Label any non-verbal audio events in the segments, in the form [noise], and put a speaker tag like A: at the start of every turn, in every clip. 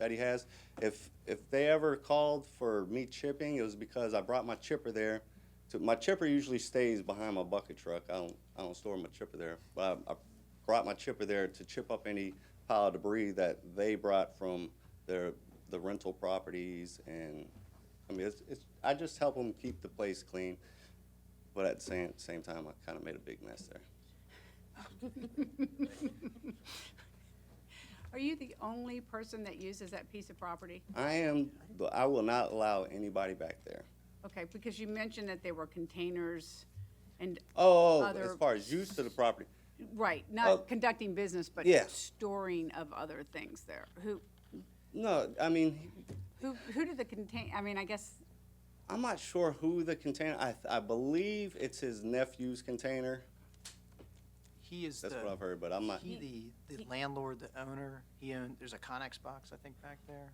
A: that he has. If if they ever called for me chipping, it was because I brought my chipper there. To, my chipper usually stays behind my bucket truck. I don't I don't store my chipper there, but I, I brought my chipper there to chip up any pile of debris that they brought from their the rental properties and. I mean, it's, it's, I just help them keep the place clean, but at the same, same time, I kind of made a big mess there.
B: Are you the only person that uses that piece of property?
A: I am, I will not allow anybody back there.
B: Okay, because you mentioned that there were containers and,
A: Oh, as
B: Other-
A: far as use to the property,
B: right,
A: Oh.
B: not conducting business, but
A: Yeah.
B: storing of other things there. Who,
A: no, I mean,
B: who, who did the contain, I mean, I guess,
A: I'm not sure who the container, I, I believe it's his nephew's container.
C: He is the.
A: That's what I've heard, but I'm not,
C: He, the, the landlord, the owner, he owned, there's a Connex box, I think, back there.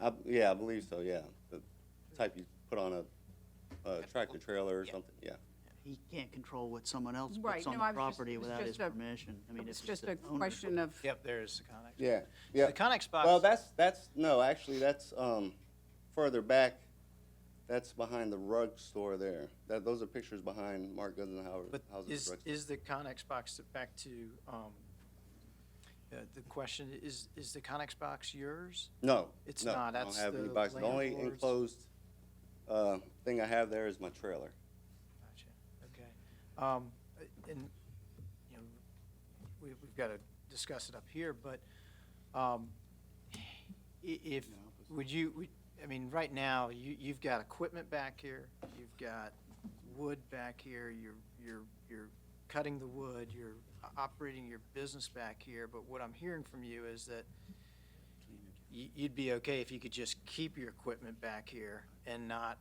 A: I, yeah, I believe so, yeah. The type you put on a, a tractor trailer or something, yeah.
D: He can't control what someone else
B: Right,
D: puts on
B: no,
D: the
B: I was just-
D: property
B: it's
D: without his
B: just a-
D: permission. I mean,
B: it's
D: if
B: just
D: the
B: a
D: owner-
B: question of,
C: Yep, there's the Connex.
A: Yeah,
C: So
A: yeah.
C: The Connex box.
A: Well, that's, that's, no, actually, that's, um, further back. That's behind the rug store there. That, those are pictures behind Mark Guzenhauer's
C: But
A: house's
C: is,
A: rug. store.
C: is the Connex box, to- back to, um, uh, the question, is, is the Connex box yours?
A: No.
C: It's
A: no,
C: not,
A: I
C: that's
A: don't have any
C: the
A: box. The only
C: landlord's.
A: enclosed, uh, thing I have there is my trailer.
C: Gotcha, okay. Um, and, you know, we, we've got to discuss it up here, but, um, i- if, would you, would- I mean, right now, you, you've got equipment back here, you've got wood back here, you're, you're, you're cutting the wood, you're o- operating your business back here, but what I'm hearing from you is that you, you'd be okay if you could just keep your equipment back here and not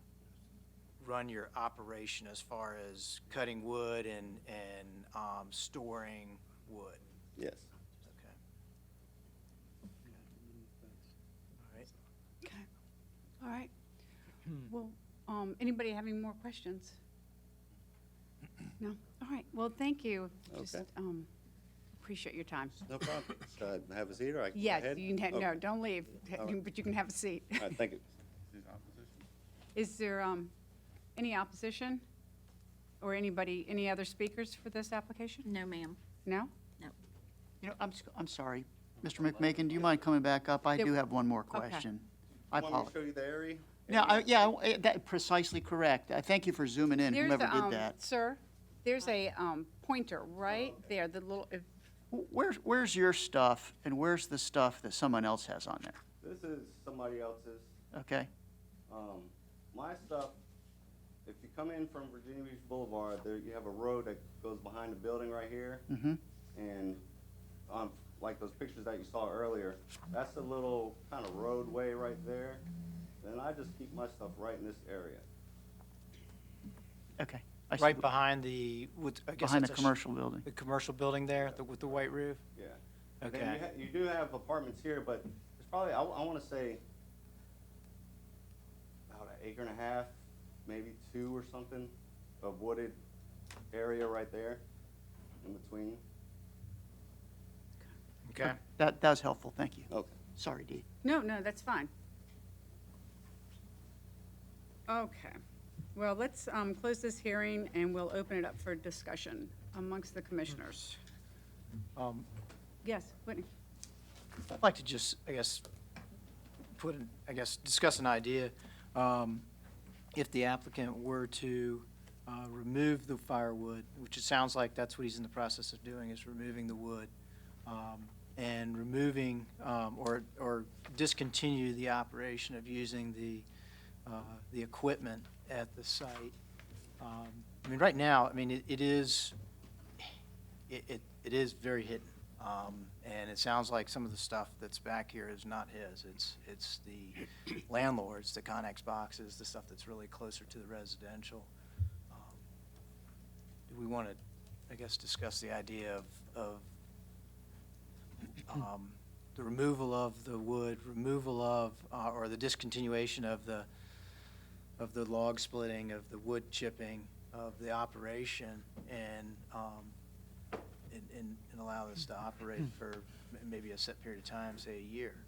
C: run your operation as far as cutting wood and, and um, storing wood?
A: Yes.
C: Okay. All right.
B: all right.
D: Hmm.
B: Well, um, anybody having more questions? No? All right, well, thank you. Just,
A: Okay.
B: um, appreciate your time.
A: No problem. Should I have a seat or I can go
B: Yes,
A: ahead?
B: you can, ha-
A: Okay.
B: no, don't leave,
A: right.
B: [laughs] but you can have a seat.
A: All right, [laughs] thank you.
B: Is there um, any opposition? Or anybody, any other speakers for this application?
E: No, ma'am.
B: No?
D: You know, I'm, s- I'm sorry. Mr. McMakin, do you mind coming back up? I
B: Yeah.
D: do have one more
B: Okay.
D: question. I
A: Want me to
D: apologize.
A: show you the area?
D: No, I- yeah, I- eh, that, precisely correct. I thank you for zooming in,
B: There's
D: whoever
B: a, um,
D: did that.
B: Sir, there's a um, pointer right there, the little, if-
D: Wh- Where's, where's your stuff and where's the stuff that someone else has on there?
A: This is somebody else's.
D: Okay?
A: Um, my stuff, if you come in from Virginia Beach Boulevard, there you have a road that goes behind the building right here.
D: Mm-hmm.
A: And on, like those pictures that you saw earlier, that's a little kind of roadway right there. Then I just keep my stuff right in this area.
D: Okay. I see
C: Right
D: wh-
C: behind the, with, I guess
D: Behind the
C: that's a sh-
D: commercial building.
C: The commercial building there, the- with the white roof?
A: Yeah. And
C: Okay.
A: you ha- You do have apartments here, but it's probably, I, want to say about an acre and a half, maybe two or something of wooded area right there in between.
C: Okay.
D: That, that was helpful, thank you.
A: Okay.
D: Sorry, Dee.
B: no, no, that's fine. Okay. Well, let's um, close this hearing and we'll open it up for discussion amongst the commissioners.
C: Um,
B: Yes, Whitney?
C: I'd like to just, I guess, put, an- I guess, discuss an idea. Um, If the applicant were to uh, remove the firewood, which it sounds like that's what he's in the process of doing, is removing the wood, um, and removing, um, or, or discontinue the operation of using the, uh, the equipment at the site. Um, I mean, right now, I mean, it- it is, it, it, it is very hidden. Um, and it sounds like some of the stuff that's back here is not his. It's, it's the landlords, the Connex boxes, the stuff that's really closer to the residential. Um, Do we want to, I guess, discuss the idea of, of, um, the removal of the wood, removal of, uh, or the discontinuation of the, of the log splitting, of the wood chipping, of the operation, and, um, and, and, and allow this to operate for m- maybe a set period of time, say a year.